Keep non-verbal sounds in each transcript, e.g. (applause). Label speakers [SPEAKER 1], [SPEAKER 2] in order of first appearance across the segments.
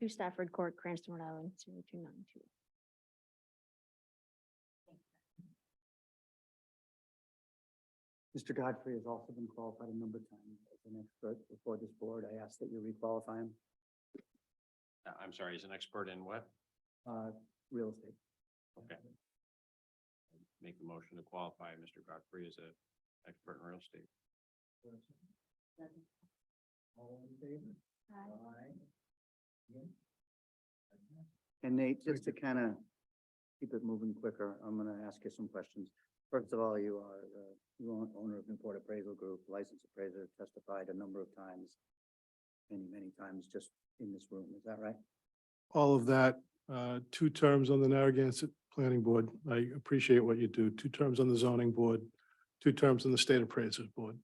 [SPEAKER 1] Two Stafford Court, Cranston, Rhode Island, zero two nine two.
[SPEAKER 2] Mr. Godfrey has also been qualified a number of times as an expert before this board. I ask that you requalify him,
[SPEAKER 3] Uh, I'm sorry, he's an expert in what?
[SPEAKER 2] uh, real estate.
[SPEAKER 3] Okay. Make the motion to qualify Mr. Godfrey as a expert in real estate.
[SPEAKER 2] All in favor? And Nate, just to kind of keep it moving quicker, I'm going to ask you some questions. First of all, you are uh, you own- owner of Newport Appraisal Group, licensed appraiser, testified a number of times, many, many times just in this room. Is that right?
[SPEAKER 4] all of that, uh, two terms on the Narragansett Planning Board. I appreciate what you do. Two terms on the zoning board, two terms on the state appraisers board.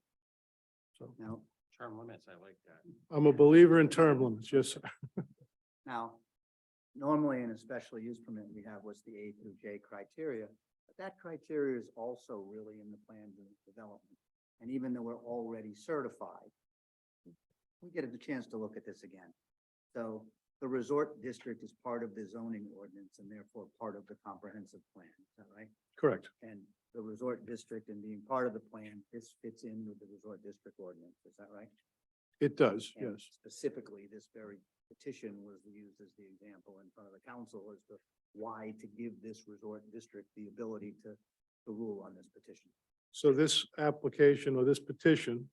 [SPEAKER 4] So
[SPEAKER 2] Now,
[SPEAKER 3] Term limits, I like that.
[SPEAKER 4] I'm a believer in term limits. Yes, sir. (laughs)
[SPEAKER 2] Now, normally in a special use permit, we have what's the A through J criteria, but that criteria is also really in the plans and development. And even though we're already certified, we get a chance to look at this again. So the resort district is part of the zoning ordinance and therefore part of the comprehensive plan, is that right?
[SPEAKER 4] correct.
[SPEAKER 2] And the resort district and being part of the plan, this fits in with the resort district ordinance, is that right?
[SPEAKER 4] It does,
[SPEAKER 2] And
[SPEAKER 4] yes.
[SPEAKER 2] Specifically, this very petition was used as the example in front of the council as to why to give this resort district the ability to, to rule on this petition.
[SPEAKER 4] So this application or this petition,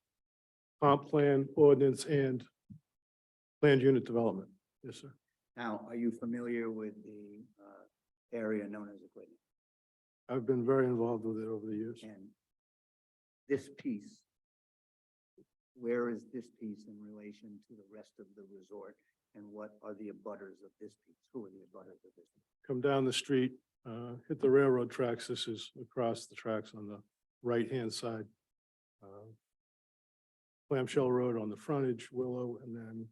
[SPEAKER 4] comp plan ordinance and planned unit development. Yes, sir.
[SPEAKER 2] Now, are you familiar with the, uh, area known as Aquidneck?
[SPEAKER 4] I've been very involved with it over the years.
[SPEAKER 2] And this piece, where is this piece in relation to the rest of the resort? And what are the abutters of this piece? Who are the abutters of this? piece?
[SPEAKER 4] Come down the street, uh, hit the railroad tracks. This is across the tracks on the right-hand side. Uh, Clamshell Road on the frontage, Willow, and then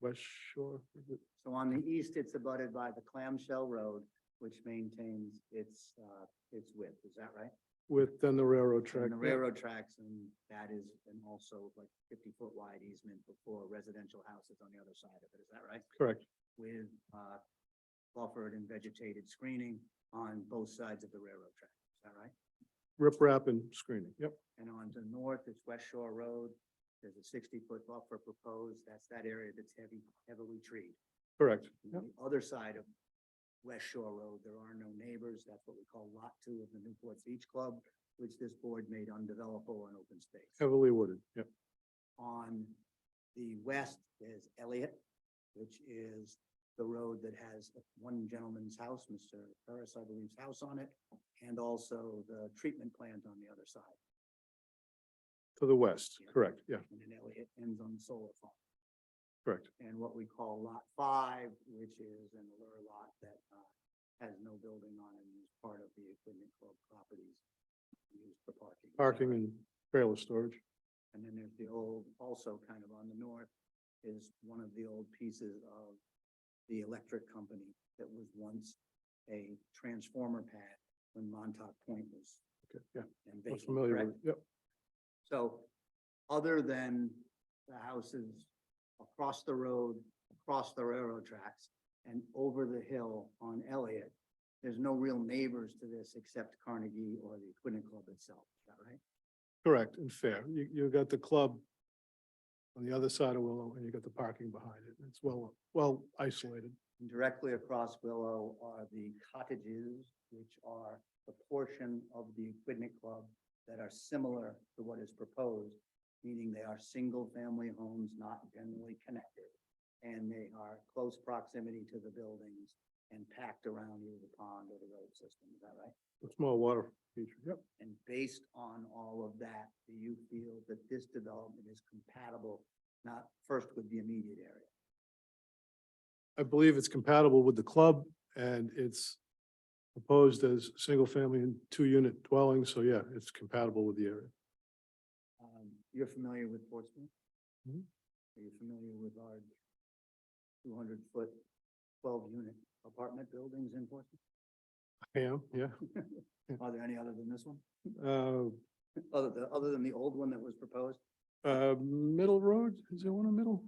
[SPEAKER 4] West Shore. is it?
[SPEAKER 2] So on the east, it's abutted by the clamshell road, which maintains its, uh, its width. Is that right?
[SPEAKER 4] With then the railroad track.
[SPEAKER 2] And the railroad tracks and that is, and also like fifty foot wide easement before residential houses on the other side of it, is that right?
[SPEAKER 4] Correct,
[SPEAKER 2] With, uh, buffered and vegetated screening on both sides of the railroad track, is that right?
[SPEAKER 4] riprap and screening. Yep,
[SPEAKER 2] And on the north, it's West Shore Road, there's a sixty foot buffer proposed, that's that area that's heavy, heavily treed.
[SPEAKER 4] correct.
[SPEAKER 2] And
[SPEAKER 4] Yep,
[SPEAKER 2] on The other side of West Shore Road, there are no neighbors, that's what we call lot two of the Newport Beach Club, which this board made undevelopable and open space.
[SPEAKER 4] heavily wooded. Yep,
[SPEAKER 2] On the west is Elliott, which is the road that has one gentleman's house, Mr. Harris, I believe's house on it, and also the treatment plant on the other side.
[SPEAKER 4] to the west. Correct, yeah,
[SPEAKER 2] And then Elliott ends on the solar farm.
[SPEAKER 4] correct.
[SPEAKER 2] And what we call lot five, which is an allure lot that uh, has no building on it and is part of the equipment club properties used for parking.
[SPEAKER 4] Parking and trailer storage.
[SPEAKER 2] And then there's the old, also kind of on the north, is one of the old pieces of the electric company that was once a transformer pad when Montauk Point was
[SPEAKER 4] Okay, yeah,
[SPEAKER 2] and
[SPEAKER 4] I'm
[SPEAKER 2] vacant,
[SPEAKER 4] familiar with
[SPEAKER 2] correct?
[SPEAKER 4] it. Yep,
[SPEAKER 2] So other than the houses across the road, across the railroad tracks and over the hill on Elliott, there's no real neighbors to this except Carnegie or the Quinnet Club itself, is that right?
[SPEAKER 4] correct and fair. You, you got the club on the other side of Willow and you got the parking behind it. It's well, well isolated.
[SPEAKER 2] And Directly across Willow are the cottages, which are the portion of the Quidnet Club that are similar to what is proposed, meaning they are single-family homes not generally connected. And they are close proximity to the buildings and packed around either the pond or the road system, is that right?
[SPEAKER 4] A small water feature. Yep.
[SPEAKER 2] And based on all of that, do you feel that this development is compatible, not first with the immediate area?
[SPEAKER 4] I believe it's compatible with the club and it's proposed as single-family and two-unit dwelling, so yeah, it's compatible with the area.
[SPEAKER 2] Um, you're familiar with Portsmouth?
[SPEAKER 4] Mhm.
[SPEAKER 2] Are you familiar with our two hundred foot, twelve unit apartment buildings in Portsmouth?
[SPEAKER 4] I am, yeah.
[SPEAKER 2] Are there any other than this one? (laughs)
[SPEAKER 4] Uh,
[SPEAKER 2] Other, than- other than the old one that was proposed?
[SPEAKER 4] uh, Middle Road, is there one in Middle?